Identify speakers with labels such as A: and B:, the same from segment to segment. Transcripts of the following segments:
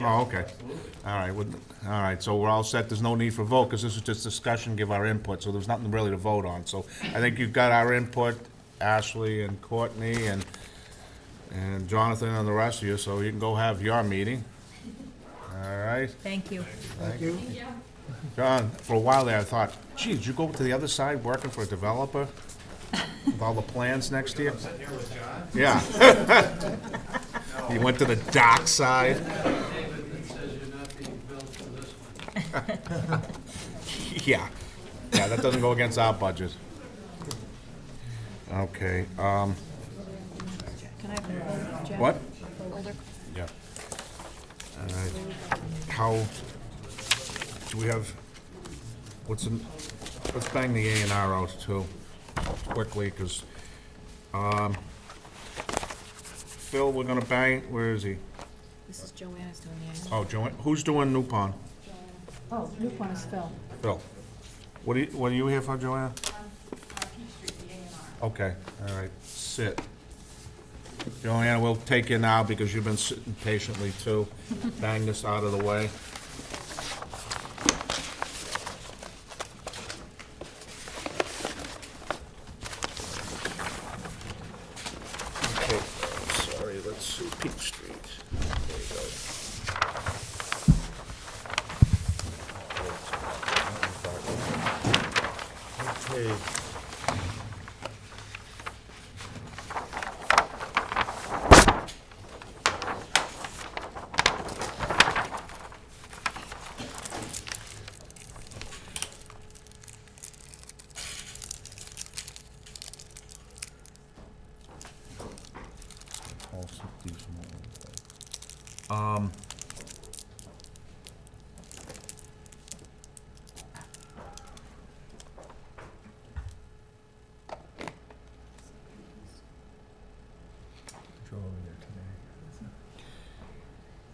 A: Oh, okay. All right, well, all right, so we're all set, there's no need for vote, because this is just discussion, give our input, so there's nothing really to vote on. So I think you've got our input, Ashley and Courtney and, and Jonathan and the rest of you, so you can go have your meeting. All right?
B: Thank you.
A: John, for a while there, I thought, gee, did you go to the other side working for a developer with all the plans next year? Yeah. He went to the dark side.
C: David, it says you're not being billed for this one.
A: Yeah, yeah, that doesn't go against our budget. Okay, um,
B: Can I have an older, Jack?
A: what?
B: Older.
A: Yeah. All right, how, do we have, what's, in- let's bang the A and R out too, quickly, because, um, Phil, we're gonna bang, where is he?
B: This is Joanne's doing the annual.
A: Oh, Joanne, who's doing New Pond?
B: Oh, new one is Phil.
A: Phil, what are you, what are you here for, Joanne? Okay, all right, sit. Joanne, we'll take you now because you've been sitting patiently too. Bang this out of the way. Okay, sorry, let's see, Peach Street. There you go. Okay. Um,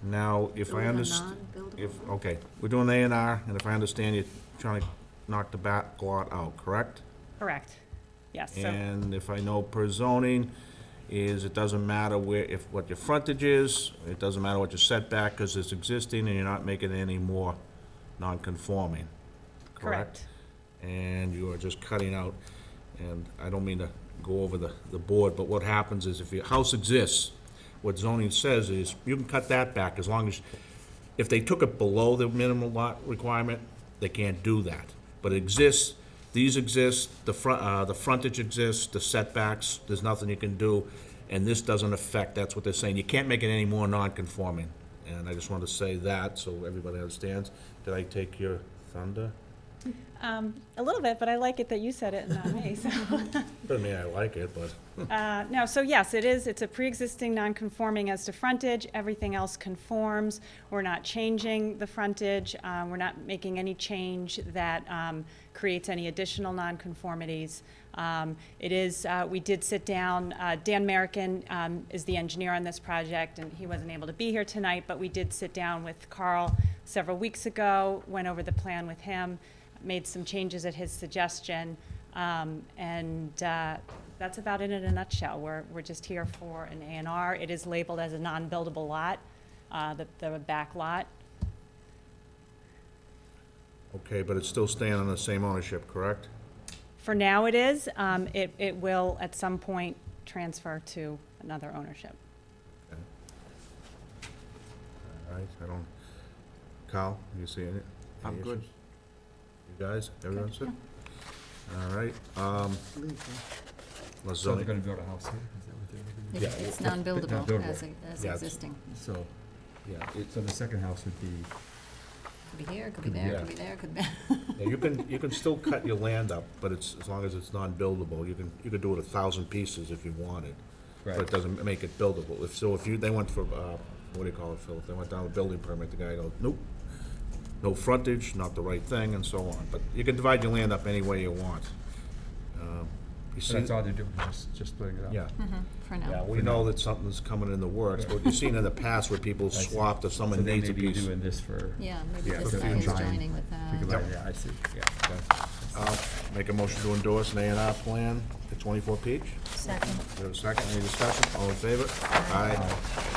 A: now, if I understand. If, okay, we're doing A and R, and if I understand, you're trying to knock the back lot out, correct?
D: Correct. Yes, so
A: And if I know per zoning, is it doesn't matter where, if, what your frontage is, it doesn't matter what your setback, because it's existing and you're not making it any more non-conforming, correct?
D: correct.
A: And you are just cutting out, and I don't mean to go over the, the board, but what happens is if your house exists, what zoning says is, you can cut that back as long as, if they took it below the minimum lot requirement, they can't do that. But it exists, these exist, the front, uh, the frontage exists, the setbacks, there's nothing you can do, and this doesn't affect, that's what they're saying, you can't make it any more non-conforming. And I just wanted to say that, so everybody understands. Did I take your thunder?
D: Um, a little bit, but I like it that you said it and not me, so.
A: Doesn't mean I like it, but.
D: Uh, No, so yes, it is, it's a pre-existing non-conforming as to frontage, everything else conforms. We're not changing the frontage, uh, we're not making any change that um, creates any additional non-conformities. Um, It is, uh, we did sit down, uh, Dan Merrickin um, is the engineer on this project, and he wasn't able to be here tonight, but we did sit down with Carl several weeks ago, went over the plan with him, made some changes at his suggestion, um, and uh, that's about it in a nutshell. We're, we're just here for an A and R. It is labeled as a non-buildable lot, uh, the, the back lot.
A: Okay, but it's still staying on the same ownership, correct?
D: For now it is, um, it, it will at some point transfer to another ownership.
A: All right, I don't, Kyle, you see any?
E: I'm
A: any
E: good.
A: issues? You guys, everyone's good? All right, um, let's
E: So they're
A: zoning,
E: gonna build a house here, is that what they're gonna do?
A: Yeah,
F: It's
E: well,
F: non-buildable
E: non-buildable.
F: as, e- as
A: Yeah, it's-
F: existing.
E: So, yeah, it- so the second house would be,
F: Could be here, could be there, could be there, could be.
A: Yeah, you can, you can still cut your land up, but it's, as long as it's non-buildable, you can, you could do it a thousand pieces if you wanted. But it
E: Right.
A: doesn't make it buildable, if, so if you, they went for, uh, what do you call it, Phil, if they went down a building permit, the guy goes, nope, no frontage, not the right thing, and so on, but you can divide your land up any way you want. Um, You
E: so
A: see,
E: that's all they're doing, just, just splitting it up?
A: yeah.
F: For
A: Yeah,
F: now.
A: we know that something's coming in the works, but you've seen in the past where people
E: see.
A: swapped if
E: So
A: someone
E: they
A: needs
E: may
A: a
E: be
A: piece.
E: doing this for.
F: Yeah, maybe
A: Yeah,
F: this
A: for
F: guy is
E: future.
F: joining with uh, that.
E: Think about it, Yeah, I see, yeah. okay.
A: I'll Uh, Make a motion to endorse an A and R plan for twenty-four Peach.
B: Second.
A: We have a second, any discussion, all in favor? Aye.